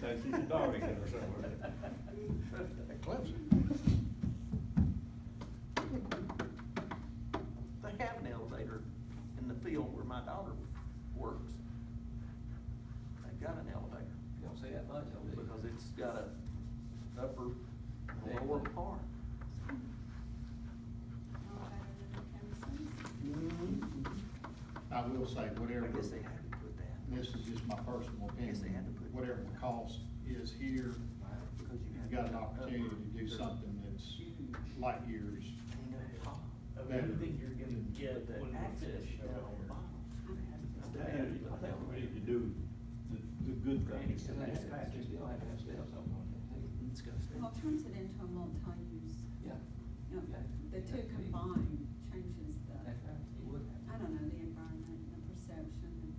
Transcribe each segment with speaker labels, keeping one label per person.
Speaker 1: That's in Dominican or somewhere.
Speaker 2: At Clemson.
Speaker 3: They have an elevator in the field where my daughter works. They've got an elevator,
Speaker 4: You don't see that much over there.
Speaker 3: because it's got a upper and lower part.
Speaker 2: I will say, whatever,
Speaker 3: I guess they had to put that,
Speaker 2: this is just my personal
Speaker 3: Yes, they had
Speaker 2: opinion,
Speaker 3: to put-
Speaker 2: whatever the cost is here,
Speaker 3: because you have.
Speaker 2: you've got an opportunity to do
Speaker 3: There's a
Speaker 2: something that's
Speaker 3: Huge
Speaker 2: light years.
Speaker 3: thing up top.
Speaker 5: Of everything you're gonna get
Speaker 3: But the
Speaker 5: when we
Speaker 3: access
Speaker 5: finish
Speaker 3: down on the
Speaker 5: up
Speaker 3: bottom.
Speaker 1: And We need to do the, the good things.
Speaker 4: Still have to have- you still have to have steps up on it, too.
Speaker 3: Disgusting.
Speaker 6: Well, it turns it into a multi-use,
Speaker 4: Yeah.
Speaker 6: you know,
Speaker 4: Yeah.
Speaker 6: the two combined changes the,
Speaker 4: That's right, you would
Speaker 6: I
Speaker 4: have.
Speaker 6: don't know, the environment and the perception and.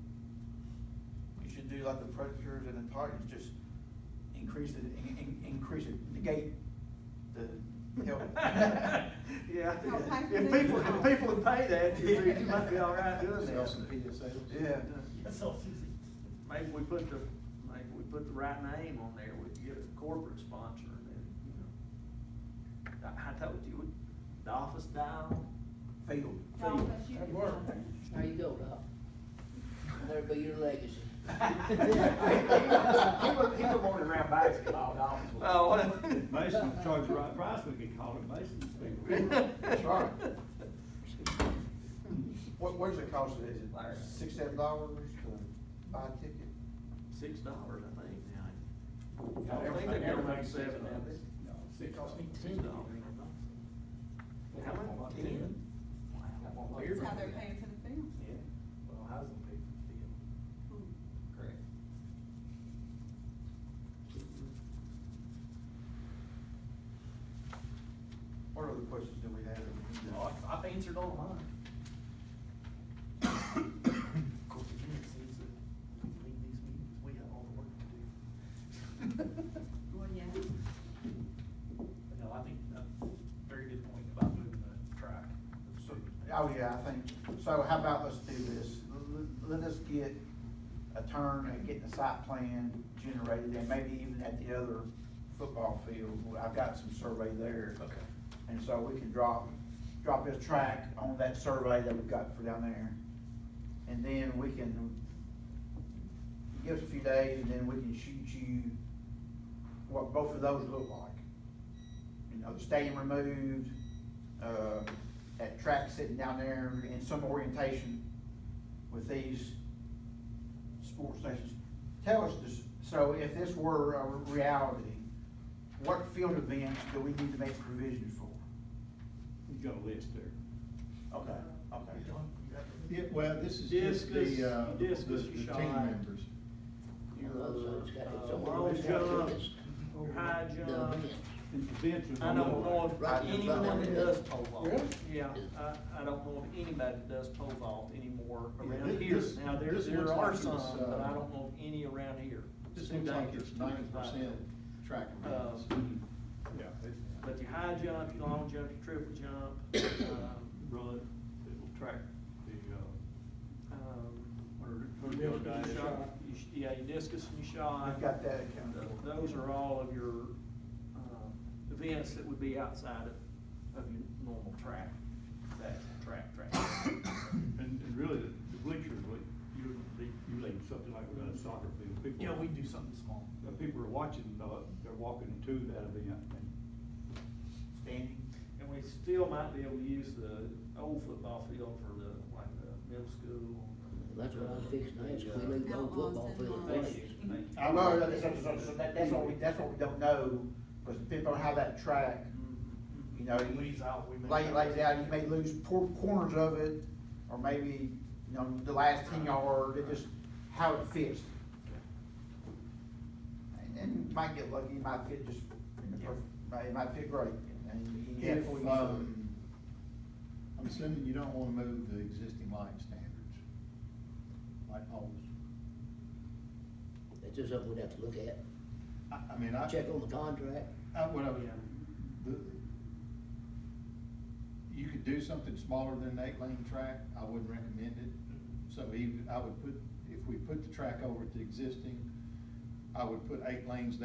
Speaker 7: You should do like the predators and the titans, just increase it, in, in- increase it, negate the help.
Speaker 3: Yeah.
Speaker 6: No, pay for
Speaker 7: If
Speaker 6: the
Speaker 7: people, if
Speaker 6: uniform.
Speaker 7: people would pay that, you you might be all right doing
Speaker 2: Sell
Speaker 7: that.
Speaker 2: some PSAs.
Speaker 7: Yeah.
Speaker 5: That's all Susie.
Speaker 3: Maybe we put the, maybe we put the right name on there, we could get a corporate sponsor and then, you know. I, I told you, the office dial,
Speaker 7: Field.
Speaker 6: Y'all, but you
Speaker 7: That'd
Speaker 6: can
Speaker 7: work.
Speaker 6: have it.
Speaker 8: There you go, Doc. There'll be your legacy.
Speaker 7: He would, he would want to round basketball, dog.
Speaker 3: Oh, what?
Speaker 1: Mason charge the right price, we could call it Mason's people.
Speaker 7: That's right. What, what does it cost, is it
Speaker 3: Larry.
Speaker 7: six, seven dollars to buy a ticket?
Speaker 3: Six dollars, I think, now. I don't think
Speaker 5: Everything-
Speaker 3: they're gonna make
Speaker 5: everything's
Speaker 3: seven of it.
Speaker 1: No,
Speaker 7: It
Speaker 1: six
Speaker 7: cost me
Speaker 3: Six dollars. How much? Ten? Wow.
Speaker 6: That's how they're paying for the film.
Speaker 5: Yeah, well, housing paid for
Speaker 6: Hmm.
Speaker 4: Correct.
Speaker 7: What other questions do we have? that we need
Speaker 5: the
Speaker 7: to-
Speaker 5: field. Well, I- I've answered all mine. Of course, again, it seems that when we leave these meetings, we have all the work to do.
Speaker 6: Well, yeah.
Speaker 5: But No, I think, uh, very good point about moving the track.
Speaker 7: So, oh yeah, I think, so how about let's do this, let, let us get a turn at getting a site plan generated, and maybe even at the other football field, I've got some survey there.
Speaker 5: Okay.
Speaker 7: And so we can drop, drop this track on that survey that we've got for down there, and then we can, give us a few days, and then we can shoot you what both of those look like you know, the stadium removed, uh, that track sitting down there in some orientation with these sports stations. Tell us this, so if this were a reality, what field events do we need to make provision for?
Speaker 1: You got a list there.
Speaker 7: Okay, okay.
Speaker 2: Yeah, well, this is just
Speaker 1: Discus,
Speaker 2: the, uh, the,
Speaker 1: discus
Speaker 2: the team
Speaker 1: shot.
Speaker 2: members.
Speaker 8: Although it's got its
Speaker 3: Uh,
Speaker 8: own-
Speaker 3: long
Speaker 8: it's got
Speaker 3: jump,
Speaker 8: its-
Speaker 3: high
Speaker 8: the
Speaker 3: jump.
Speaker 8: event.
Speaker 1: And the bench was.
Speaker 3: I don't know
Speaker 8: Right,
Speaker 3: if anyone that
Speaker 8: right.
Speaker 3: does pole vault.
Speaker 2: Really?
Speaker 3: Yeah, I, I don't know if anybody that does pole vault anymore
Speaker 2: Yeah,
Speaker 3: around
Speaker 2: thi-
Speaker 3: here.
Speaker 2: this-
Speaker 3: Now, there,
Speaker 2: this
Speaker 3: there
Speaker 2: looks
Speaker 3: are
Speaker 2: like it's,
Speaker 3: some, but I
Speaker 2: uh,
Speaker 3: don't know of any around here.
Speaker 2: This
Speaker 3: Too
Speaker 2: looks like
Speaker 3: dangerous
Speaker 2: it's
Speaker 3: to
Speaker 2: ninety
Speaker 3: do right
Speaker 2: percent track
Speaker 3: there. Uh,
Speaker 2: events.
Speaker 1: Yeah, it's
Speaker 3: But your high jump, your long jump, your triple jump, um,
Speaker 1: run, it will track the, uh,
Speaker 3: um,
Speaker 1: what
Speaker 3: your
Speaker 1: are, the other guys?
Speaker 3: your shot, you sh- Yeah, your discus and your shot.
Speaker 7: I've got that
Speaker 3: Th-
Speaker 7: accounted for.
Speaker 3: Those are all of your, um, events that would be outside of, of your normal track, that track, track.
Speaker 1: And, and really, the the bleachers, like, you, you leave something like a soccer field, people.
Speaker 5: Yeah, we do something small.
Speaker 1: The people are watching, uh, they're walking to that event, and
Speaker 7: Standing.
Speaker 3: And we still might be able to use the old football field for the, like, the middle school.
Speaker 8: That's what I was fixing to ask, we
Speaker 3: Uh,
Speaker 8: leave the old football field in
Speaker 3: Thank you,
Speaker 8: place.
Speaker 3: thank you.
Speaker 7: I know, that's, that's, that's- that's what we, that's what we don't know, because people have that track,
Speaker 3: Mm-hmm.
Speaker 7: you know. you-
Speaker 5: Lays out, uh, we may-
Speaker 7: Lay, lays out, you may lose por- corners of it, or maybe, you know, the last ten yard, it just, how it fits. And, and you might get lucky, it might fit just, in the perfect- might- it might fit great, and you have
Speaker 2: If,
Speaker 7: full use of it.
Speaker 2: um, I'm assuming you don't wanna move the existing light standards, light poles.
Speaker 8: It's just something we'd have to look at,
Speaker 2: I, I mean, I.
Speaker 8: check on the contract.
Speaker 2: I, Uh, what I was, the, you could do something smaller than an eight-lane track, I wouldn't recommend it. So even, I would put, if we put the track over at the existing, I would put eight lanes